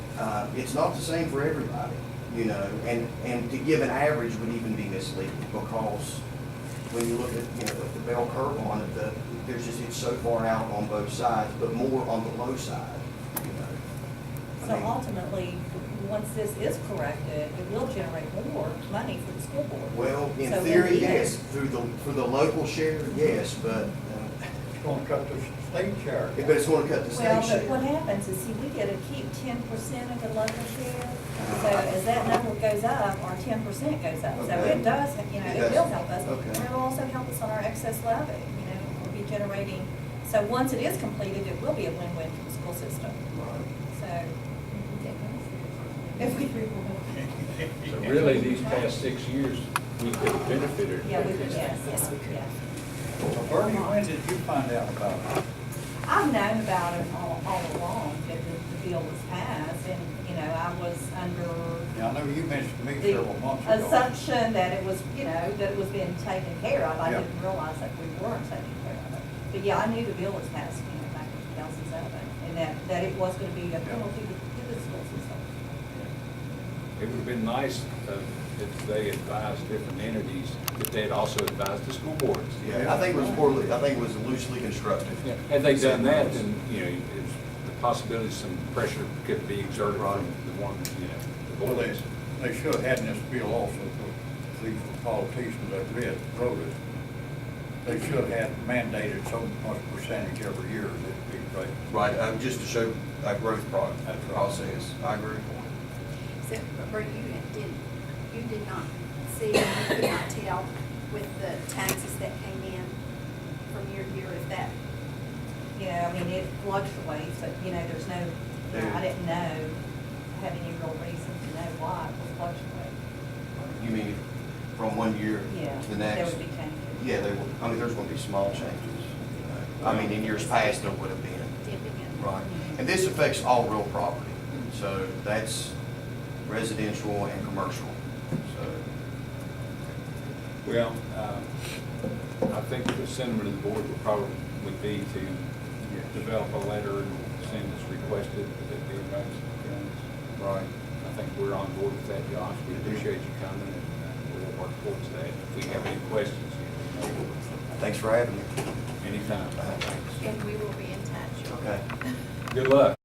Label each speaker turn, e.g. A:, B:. A: uh, it's not the same for everybody, you know, and, and to give an average would even be misleading because when you look at, you know, the bell curve on it, the, there's just, it's so far out on both sides, but more on the low side, you know. I
B: So
A: mean-
B: ultimately, once this is corrected, it will generate more money for the school board.
A: Well, in
B: So we'll
A: theory,
B: need it.
A: yes, through the, for the local share, yes, but, uh,
C: It's gonna cut the state share.
A: but it's gonna cut the
B: Well,
A: state
B: but what
A: share.
B: happens is, see, we get to keep ten percent of the local share, so
A: Uh,
B: as that number goes up, our ten percent goes up. So
A: Okay.
B: it does, you know,
A: It
B: it
A: does.
B: will help us,
A: Okay.
B: and it'll also help us on our excess levy, you know, we'll be generating. So once it is completed, it will be a win-win for the school system,
A: Right.
B: so. If we,
D: So really, these past six years, we could have benefited.
B: yeah, we, yes, yes, yes.
C: Well, Bernie, when did you find out about it?
B: I've known about it all, all along, that the, the bill was passed, and, you know, I was under
C: Now, I know you mentioned to me several months
B: the
C: ago.
B: assumption that it was, you know, that it was being taken care of, I
C: Yeah.
B: didn't realize that we weren't taking care of it. But yeah, I knew the bill was passed, you know, back in two thousand seven, and that, that it was gonna be a penalty to to the school system.
D: It would have been nice uh, if they advised different entities, if they had also advised the school boards.
A: Yeah, I think it was poorly, I think it was loosely constructed.
D: Yeah, Had they done that, then, you know, it's- the possibility some pressure could be exerted on the one, you know, the
C: Well, they,
D: boards.
C: they should have had in this bill also, for these politicians that read, wrote it. They should have mandated so much percentage every year, that'd be great.
A: Right, um, just to show a growth pro- a process, I agree.
E: So, Bert, you did, you did not see, you could not tell with the taxes that came in from year to year if that,
B: You know, I mean, it fluctuates, but, you know, there's no, you know, I didn't know, have any real reason to know why it would fluctuate.
A: You mean from one year
B: Yeah,
A: to the
B: there
A: next?
B: would be changes.
A: Yeah, there will, I mean, there's gonna be small changes. you know. I mean, in years past, there would have been.
E: dipping in.
A: Right.
B: Mm-hmm.
A: And this affects all real property. So that's residential and commercial. So,
D: Well, um, I think the sentiment of the board would probably, would be to develop a letter and send as requested, but that be advised. Right. I think we're on board with that, Josh. We appreciate you coming and uh, we'll work towards that. If we have any questions, you know,
A: thanks for having me.
D: anytime.
E: And we will be in touch.
A: Okay.
D: Good luck.